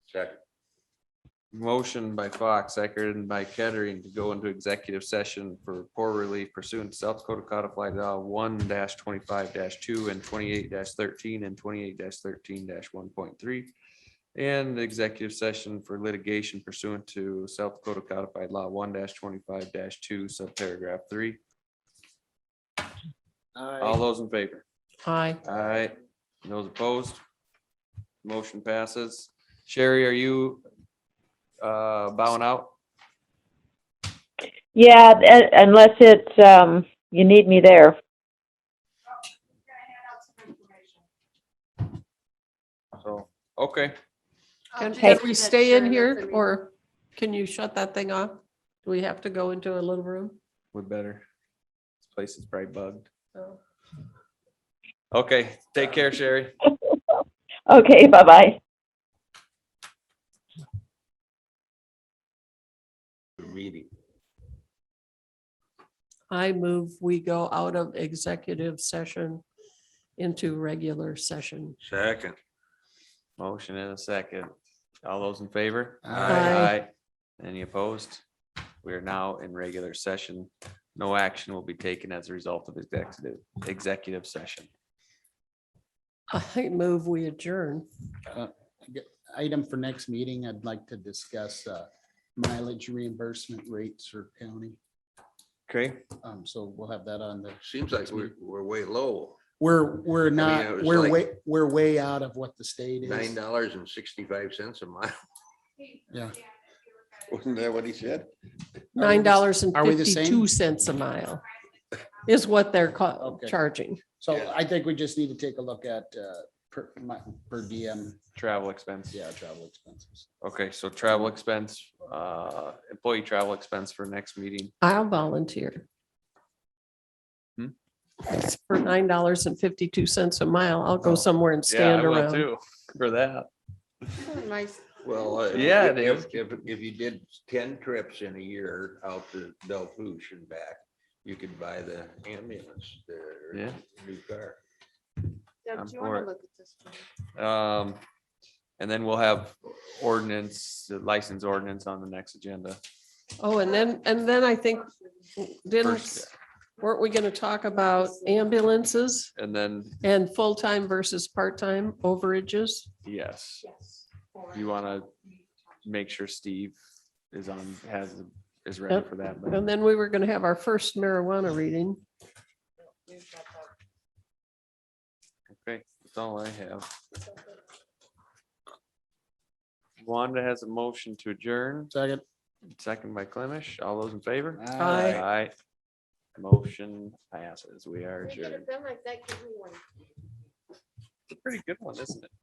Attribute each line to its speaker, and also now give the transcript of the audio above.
Speaker 1: Second.
Speaker 2: Motion by Fox, seconded by Kettering to go into executive session for poor relief pursuant to South Dakota Codified Law one twenty-five two and twenty-eight thirteen and twenty-eight thirteen one point three. And the executive session for litigation pursuant to South Dakota Codified Law one twenty-five two, subparagraph three. All those in favor?
Speaker 3: Aye.
Speaker 2: Aye. Those opposed? Motion passes. Sherry, are you uh, bowing out?
Speaker 4: Yeah, uh, unless it's, um, you need me there.
Speaker 2: So, okay,
Speaker 3: Can
Speaker 4: Okay.
Speaker 3: can we stay in here or can you shut that thing off? Do we have to go into a little room?
Speaker 2: we better. This place is probably bugged.
Speaker 3: No.
Speaker 2: Okay, take care, Sherry.
Speaker 4: Okay, bye-bye.
Speaker 1: Meeting.
Speaker 3: I move we go out of executive session into regular session.
Speaker 1: Second.
Speaker 2: Motion in a second. All those in favor?
Speaker 3: Aye.
Speaker 2: Aye. Any opposed? We are now in regular session. No action will be taken as a result of executive, executive session.
Speaker 3: I move we adjourn.
Speaker 5: item for next meeting, I'd like to discuss uh, mileage reimbursement rates for county.
Speaker 2: Okay.
Speaker 5: Um, So we'll have that on the,
Speaker 1: Seems like we're, we're way low,
Speaker 5: we're, we're
Speaker 1: it
Speaker 5: not,
Speaker 1: was
Speaker 5: we're
Speaker 1: like-
Speaker 5: way, we're way out of what the state
Speaker 1: nine
Speaker 5: is.
Speaker 1: dollars and sixty-five cents a mile.
Speaker 5: Yeah.
Speaker 1: Wasn't that what he said?
Speaker 3: Nine dollars and
Speaker 5: are we the same? Oh,
Speaker 3: fifty-two cents a mile is what they're ca-
Speaker 5: Okay.
Speaker 3: charging.
Speaker 5: So I think we just need to take a look at uh, per, mi- per diem,
Speaker 2: Travel expense.
Speaker 5: yeah, travel expenses.
Speaker 2: Okay, so travel expense, uh, employee travel expense for next meeting.
Speaker 3: I'll volunteer.
Speaker 2: Hmm?
Speaker 3: It's For nine dollars and fifty-two cents a mile, I'll go
Speaker 2: Oh.
Speaker 3: somewhere and stand around.
Speaker 2: For that.
Speaker 6: Nice.
Speaker 1: Well. uh,
Speaker 2: Yeah, it
Speaker 1: if-
Speaker 2: is.
Speaker 1: If, if you did ten trips in a year out to Del Pouche and back, you could buy the ambulance, the
Speaker 2: Yeah.
Speaker 1: new car.
Speaker 2: I'm
Speaker 6: Doug, do you
Speaker 2: for
Speaker 6: want
Speaker 2: it.
Speaker 6: to look at this? one?
Speaker 2: Um, and then we'll have ordinance, the license ordinance on the next agenda.
Speaker 3: Oh, and then, and then I think, didn't,
Speaker 2: First-
Speaker 3: weren't we gonna talk about ambulances
Speaker 2: And then,
Speaker 3: and full-time versus part-time overages?
Speaker 2: yes, you want to make sure Steve is on, has, is ready
Speaker 3: Yep.
Speaker 2: for that. but-
Speaker 3: And then we were gonna have our first marijuana reading.
Speaker 2: Okay, that's all I have. Wanda has a motion to adjourn,
Speaker 5: Second.
Speaker 2: second by Clemish. All those in favor?
Speaker 3: Aye.
Speaker 2: Aye. Motion passes. We are
Speaker 6: We could
Speaker 2: adjourned.
Speaker 6: have been like that, give me one.
Speaker 2: Pretty good one, isn't it?